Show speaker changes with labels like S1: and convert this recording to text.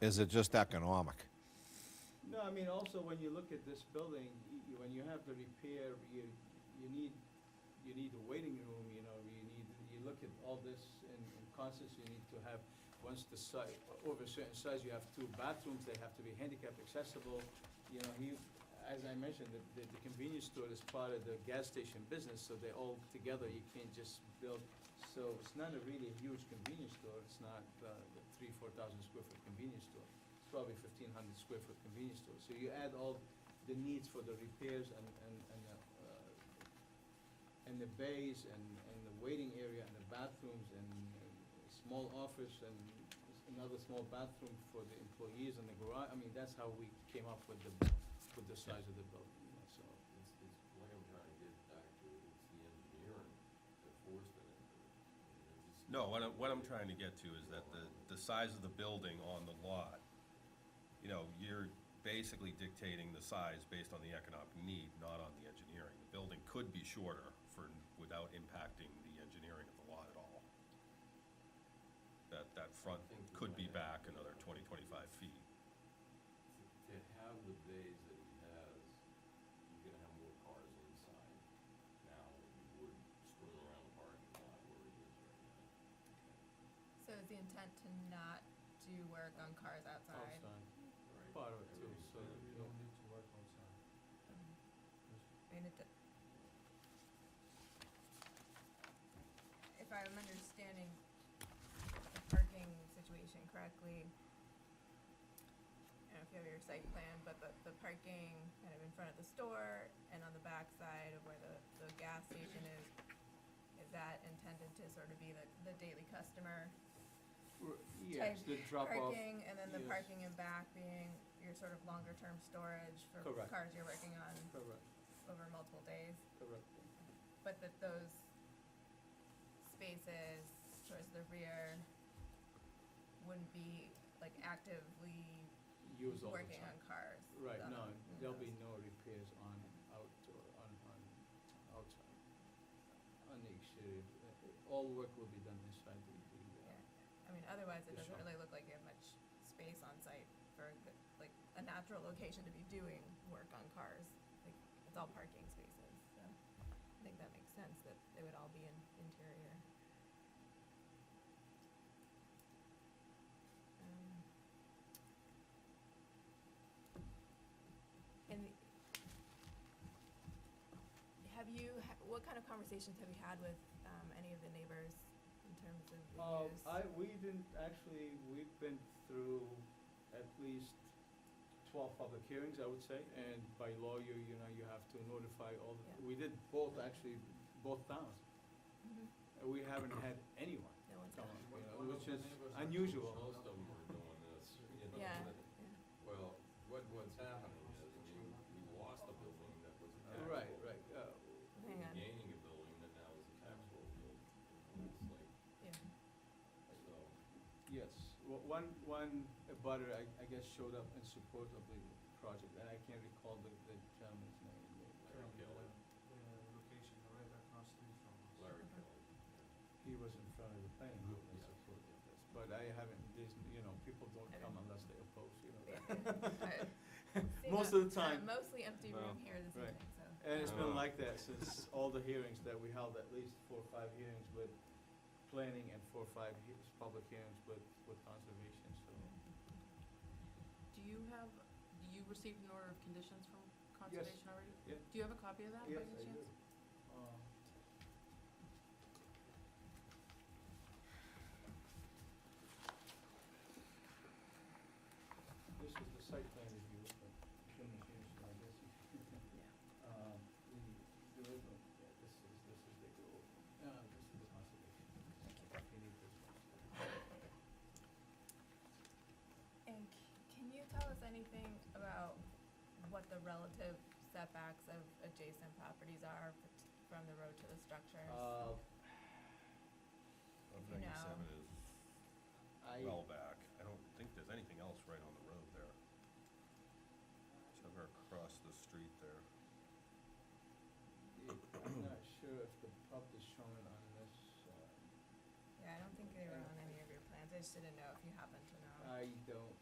S1: is it just economic?
S2: No, I mean, also, when you look at this building, y- you- when you have the repair, you, you need, you need a waiting room, you know, you need, you look at all this in, in concerts, you need to have, once the size, over a certain size, you have two bathrooms, they have to be handicap accessible, you know, he, as I mentioned, the, the- the convenience store is part of the gas station business, so they're all together, you can't just build, so it's not a really huge convenience store, it's not, uh, the three, four thousand square foot convenience store it's probably fifteen hundred square foot convenience store. So you add all the needs for the repairs and, and, and, the, uh, and the bays and, and the waiting area and the bathrooms and uh, small office and s- another small bathroom for the employees and the garage. I mean, that's how we came up with the, with the size of the building, you know, so.
S3: It's, it's like I'm trying to get back to, it's the engineering, the forcement.
S4: No, what I'm, what I'm trying to get to is that the, the size of the building on the lot, you know, you're basically dictating the size based on the economic need, not on the engineering. The building could be shorter for, without impacting the engineering of the lot at all. That, that front could be back another 20, 25 feet.
S3: To have the bays that he has, you're gonna have more cars inside now than you would screwing around the parking lot where it is right now.
S5: So is the intent to not do work on cars outside?
S2: Outside,
S3: Right?
S2: part of it too,
S3: Everything's
S2: so,
S3: better.
S2: you know,
S5: Mm-hmm. I mean, it d- If I'm understanding the parking situation correctly, I don't know if you have your site plan, but the, the parking kind of in front of the store and on the back side of where the, the gas station is, is that intended to sort of be the, the daily customer
S2: r- yes,
S5: Type
S2: the drop off.
S5: parking, and then the
S2: yes.
S5: parking in back being your sort of longer-term storage for
S2: Correct.
S5: cars you're working on
S2: Correct,
S5: over multiple days,
S2: correct.
S5: but that those spaces towards the rear wouldn't be like actively
S2: Use all the
S5: working
S2: time.
S5: on cars. mm-hmm.
S2: Right,
S5: on-
S2: no,
S5: on
S2: there'll
S5: those.
S2: be no repairs on outdoor, on, on outside, on the exterior. Uh, All work will be done inside the, the,
S5: Yeah.
S2: uh,
S5: I mean, otherwise it
S2: Yeah,
S5: doesn't
S2: sure.
S5: really look like you have much space on site for a good- like a natural location to be doing work on cars. Like, it's all parking spaces, so I think that makes sense that they would all be in interior. Um, And the- have you, ha- what kind of conversations have you had with um, any of the neighbors in terms of the
S2: Uh,
S5: use?
S2: I, we didn't, actually, we've been through at least twelve public hearings, I would say, and by law, you, you know, you have to notify all, the-
S5: Yeah.
S2: we did both, actually, both towns.
S5: Mhm.
S2: Uh, We haven't had anyone
S5: No one's
S2: come, up,
S5: done it.
S2: you know,
S3: One of
S2: which
S3: the
S2: is
S3: neighbors are-
S2: unusual.
S3: Most of them are doing this, you know.
S5: Yeah,
S3: that-
S5: yeah.
S3: Well, what, what's happening is, I mean, we lost a building that was a taxable.
S2: Right, right, uh,
S3: We were
S5: Hang on.
S3: Gaining a building that now is a taxable building, you know, it's like,
S5: Yeah.
S3: so,
S2: Yes, Wha- one, one abutter, I, I guess, showed up in support of the project, and I can't recall the, the gentleman's name.
S3: Larry Kelly,
S6: location right across the street from us.
S3: Larry Kelly.
S2: He was in front of the planning group in
S3: Yeah.
S2: support of this, but I haven't, there's, you know, people don't
S5: Okay.
S2: come unless they oppose, you know.
S5: Yeah.
S2: that.
S5: Seeing
S2: Most of
S5: a-
S2: the
S5: a
S2: time.
S5: Mostly empty
S1: Well,
S5: room here this
S2: right.
S5: evening, so.
S2: And it's
S4: Oh.
S2: been like that since all the hearings that we held, at least four or five hearings with planning and four or five hea- public hearings with, with conservation, so.
S7: Do you have, do you received an order of conditions from
S2: Yes.
S7: conservation already?
S2: Yeah.
S7: Do you have a copy of that by
S2: Yes,
S7: any
S2: I do.
S7: chance?
S2: Uh, This is the site plan review, but shouldn't have changed, I guess. Um, the, the original, yeah, this is, this is the, uh, this is the conservation. You need this one.
S5: And c- can you tell us anything about what the relative setbacks of adjacent properties are f- from the road to the structures?
S2: Uh,
S4: I
S5: If you
S4: think
S5: know.
S4: seven is
S2: I,
S4: well back. I don't think there's anything else right on the road there. Somewhere across the street there.
S2: I'm not sure if the pub is shown on this, uh,
S5: Yeah, I don't think they were on any of your plans, I just didn't know if you happen to know.
S2: I